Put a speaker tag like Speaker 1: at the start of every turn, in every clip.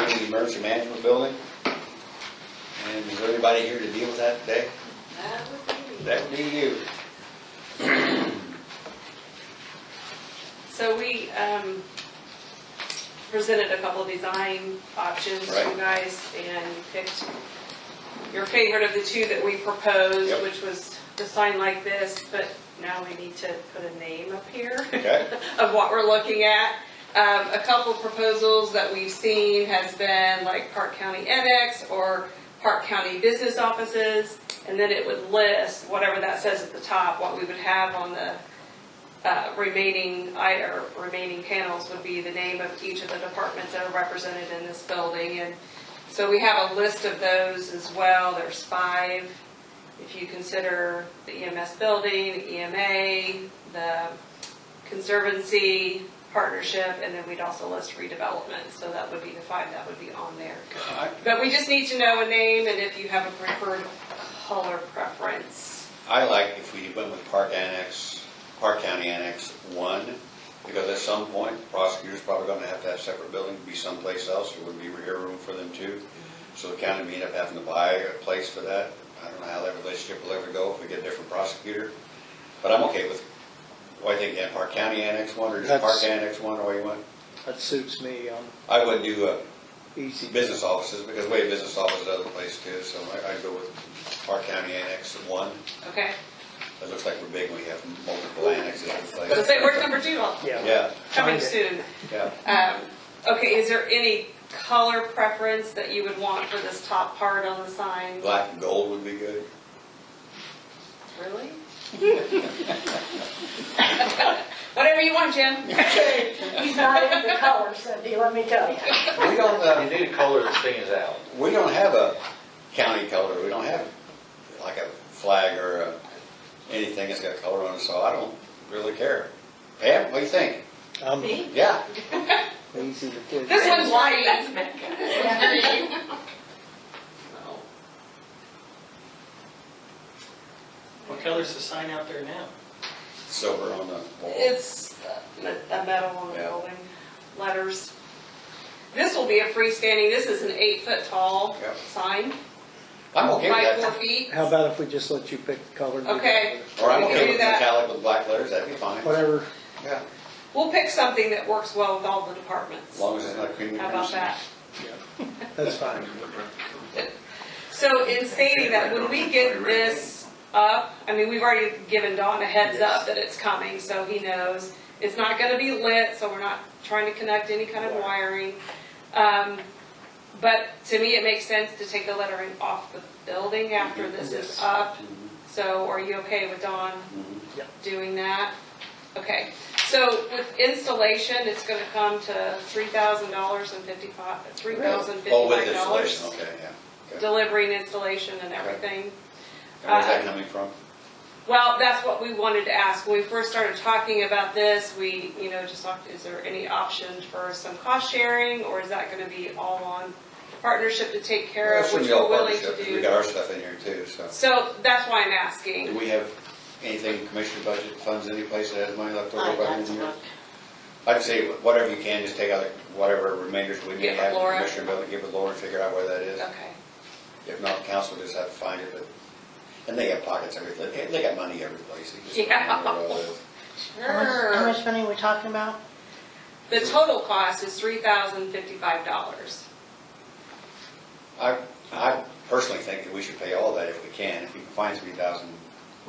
Speaker 1: emergency management building. And is everybody here to deal with that today?
Speaker 2: That would be.
Speaker 1: That would be you.
Speaker 2: So we um, presented a couple of design options to you
Speaker 1: Right.
Speaker 2: guys and picked your favorite of the two that we proposed,
Speaker 1: Yep.
Speaker 2: which was the sign like this, but now we need to put a name up here
Speaker 1: Okay.
Speaker 2: of what we're looking at. Um, A couple proposals that we've seen has been like Park County Annex or Park County Business Offices. And then it would list, whatever that says at the top, what we would have on the uh, remaining, I- or remaining panels would be the name of each of the departments that are represented in this building. And so we have a list of those as well. There's five. If you consider the EMS building, the EMA, the conservancy, partnership, and then we'd also list redevelopment. So that would be the five that would be on there.
Speaker 1: I
Speaker 2: But we just need to know a name and if you have a preferred color preference.
Speaker 1: I like if we went with Park Annex, Park County Annex One, because at some point, prosecutors probably gonna have to have separate building, be someplace else, there wouldn't be air room for them too. So the county may end up having to buy a place for that. I don't know how that relationship will ever go if we get a different prosecutor. But I'm okay with, why think, yeah, Park County Annex One, or just Park
Speaker 3: That's-
Speaker 1: Annex One, or what you want?
Speaker 3: That suits me on
Speaker 1: I would do, uh,
Speaker 3: easy.
Speaker 1: business offices, because we have business offices other places too, so I- I'd go with Park County Annex One.
Speaker 2: Okay?
Speaker 1: It looks like we're big, we have multiple annexes in
Speaker 2: So
Speaker 1: place.
Speaker 2: say where's number two Well,
Speaker 3: Yeah.
Speaker 1: Yeah,
Speaker 2: coming
Speaker 3: Find it.
Speaker 2: soon.
Speaker 1: yeah.
Speaker 2: Um, Okay, is there any color preference that you would want for this top part on the sign?
Speaker 1: Black and gold would be good.
Speaker 2: Really? Whatever you want, Jim.
Speaker 4: He's not into colors, Cindy, let me tell you.
Speaker 1: We don't, uh,
Speaker 5: You need a color that stands out.
Speaker 1: we don't have a county color, we don't have like a flag or a- anything that's got color on it, so I don't really care. Pam, what do you think?
Speaker 3: I'm
Speaker 1: Yeah,
Speaker 3: easy to do.
Speaker 2: This one's
Speaker 6: That's
Speaker 2: green.
Speaker 6: Mecca.
Speaker 7: What color's the sign out there now?
Speaker 1: silver on the wall.
Speaker 2: It's a metal on the
Speaker 1: Yeah.
Speaker 2: building, letters. This will be a freestanding, this is an eight-foot tall
Speaker 1: Yep.
Speaker 2: sign,
Speaker 1: I'm okay
Speaker 2: by
Speaker 1: with
Speaker 2: four
Speaker 1: that.
Speaker 2: feet.
Speaker 3: How about if we just let you pick the color?
Speaker 2: Okay.
Speaker 1: Or I'm
Speaker 2: We can
Speaker 1: okay
Speaker 2: do
Speaker 1: with
Speaker 2: that.
Speaker 1: metallic with black letters, that'd be fine.
Speaker 3: Whatever.
Speaker 1: Yeah,
Speaker 2: We'll pick something that works well with all the
Speaker 1: as
Speaker 2: departments.
Speaker 1: long as it's not creamy.
Speaker 2: How about that?
Speaker 3: That's fine.
Speaker 2: So in stating that, when we get this up, I mean, we've already given Don a heads up that it's coming, so he knows. It's not gonna be lit, so we're not trying to connect any kind of wiring. Um, but to me, it makes sense to take the lettering off the building after this is
Speaker 3: Yes.
Speaker 2: up. So are you okay with Don
Speaker 1: Mm-hmm.
Speaker 3: Yeah.
Speaker 2: doing that? Okay, so with installation, it's gonna come to three thousand dollars and fifty-five, three thousand
Speaker 1: Oh,
Speaker 2: fifty-five
Speaker 1: with
Speaker 2: dollars
Speaker 1: installation, okay, yeah.
Speaker 2: delivery and installation and everything.
Speaker 1: And where's that coming from?
Speaker 2: Well, that's what we wanted to ask. When we first started talking about this, we, you know, just talked, is there any options for some cost sharing? Or is that gonna be all on partnership to take care
Speaker 1: Well,
Speaker 2: of,
Speaker 1: it shouldn't
Speaker 2: which
Speaker 1: be all
Speaker 2: we're willing
Speaker 1: partnership,
Speaker 2: to
Speaker 1: 'cause We got
Speaker 2: do?
Speaker 1: our stuff in here too, so.
Speaker 2: So that's why I'm
Speaker 1: Do
Speaker 2: asking.
Speaker 1: we have anything, commissioner budget funds, any place that has money left over
Speaker 6: I'd
Speaker 1: by the
Speaker 6: like
Speaker 1: end
Speaker 6: to
Speaker 1: of the year?
Speaker 6: look.
Speaker 1: I'd say whatever you can, just take out whatever remainders we may
Speaker 2: Give it
Speaker 1: have,
Speaker 2: Laura.
Speaker 1: commissioner budget, give it Laura and figure out where that is.
Speaker 2: Okay,
Speaker 1: If not, council just have to find it, but, and they got pockets every, they- they got money every place. They just don't
Speaker 2: Yeah.
Speaker 1: know where it all is.
Speaker 6: Sure.
Speaker 4: How much- how much money are we talking about?
Speaker 2: the total cost is three thousand fifty-five dollars.
Speaker 1: I, I personally think that we should pay all that if we can, if we can find three thousand,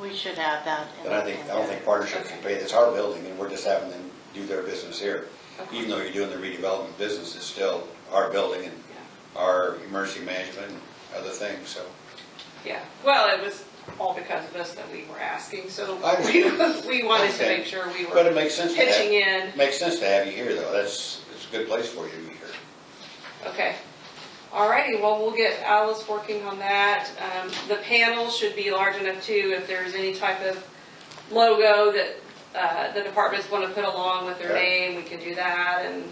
Speaker 6: We should have that. in-
Speaker 1: but I think, I don't think partnerships should pay, it's our building, and we're just having them do their business here. Even though you're doing the redevelopment business, it's still our building and our emergency management and other things, so.
Speaker 2: Yeah, well, it was all because of us that we were asking, so
Speaker 1: I understand.
Speaker 2: we wanted to
Speaker 1: Okay.
Speaker 2: make sure we
Speaker 1: But it
Speaker 2: were
Speaker 1: makes sense to
Speaker 2: pitching
Speaker 1: have,
Speaker 2: in.
Speaker 1: makes sense to have you here, though, that's, it's a good place for you to be here.
Speaker 2: Okay. All righty, well, we'll get Alice working on that. Um, The panels should be large enough too, if there's any type of logo that uh, the departments want to put along with their
Speaker 1: Yeah.
Speaker 2: name, we can do that and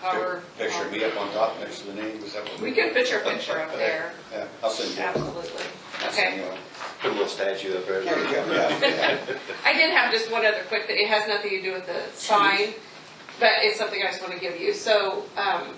Speaker 2: cover.
Speaker 1: Picture of me up on top next to the name, is that what?
Speaker 2: We can put your picture up there,
Speaker 1: Yeah, I'll send you. one.
Speaker 2: absolutely.
Speaker 1: I'll send
Speaker 2: Okay.
Speaker 1: you one.
Speaker 5: Put a little statue up there.
Speaker 1: There you go, yeah, yeah.
Speaker 2: I did have just one other quick, thing. it has nothing to do with the sign, but it's something I just want to give you. So um,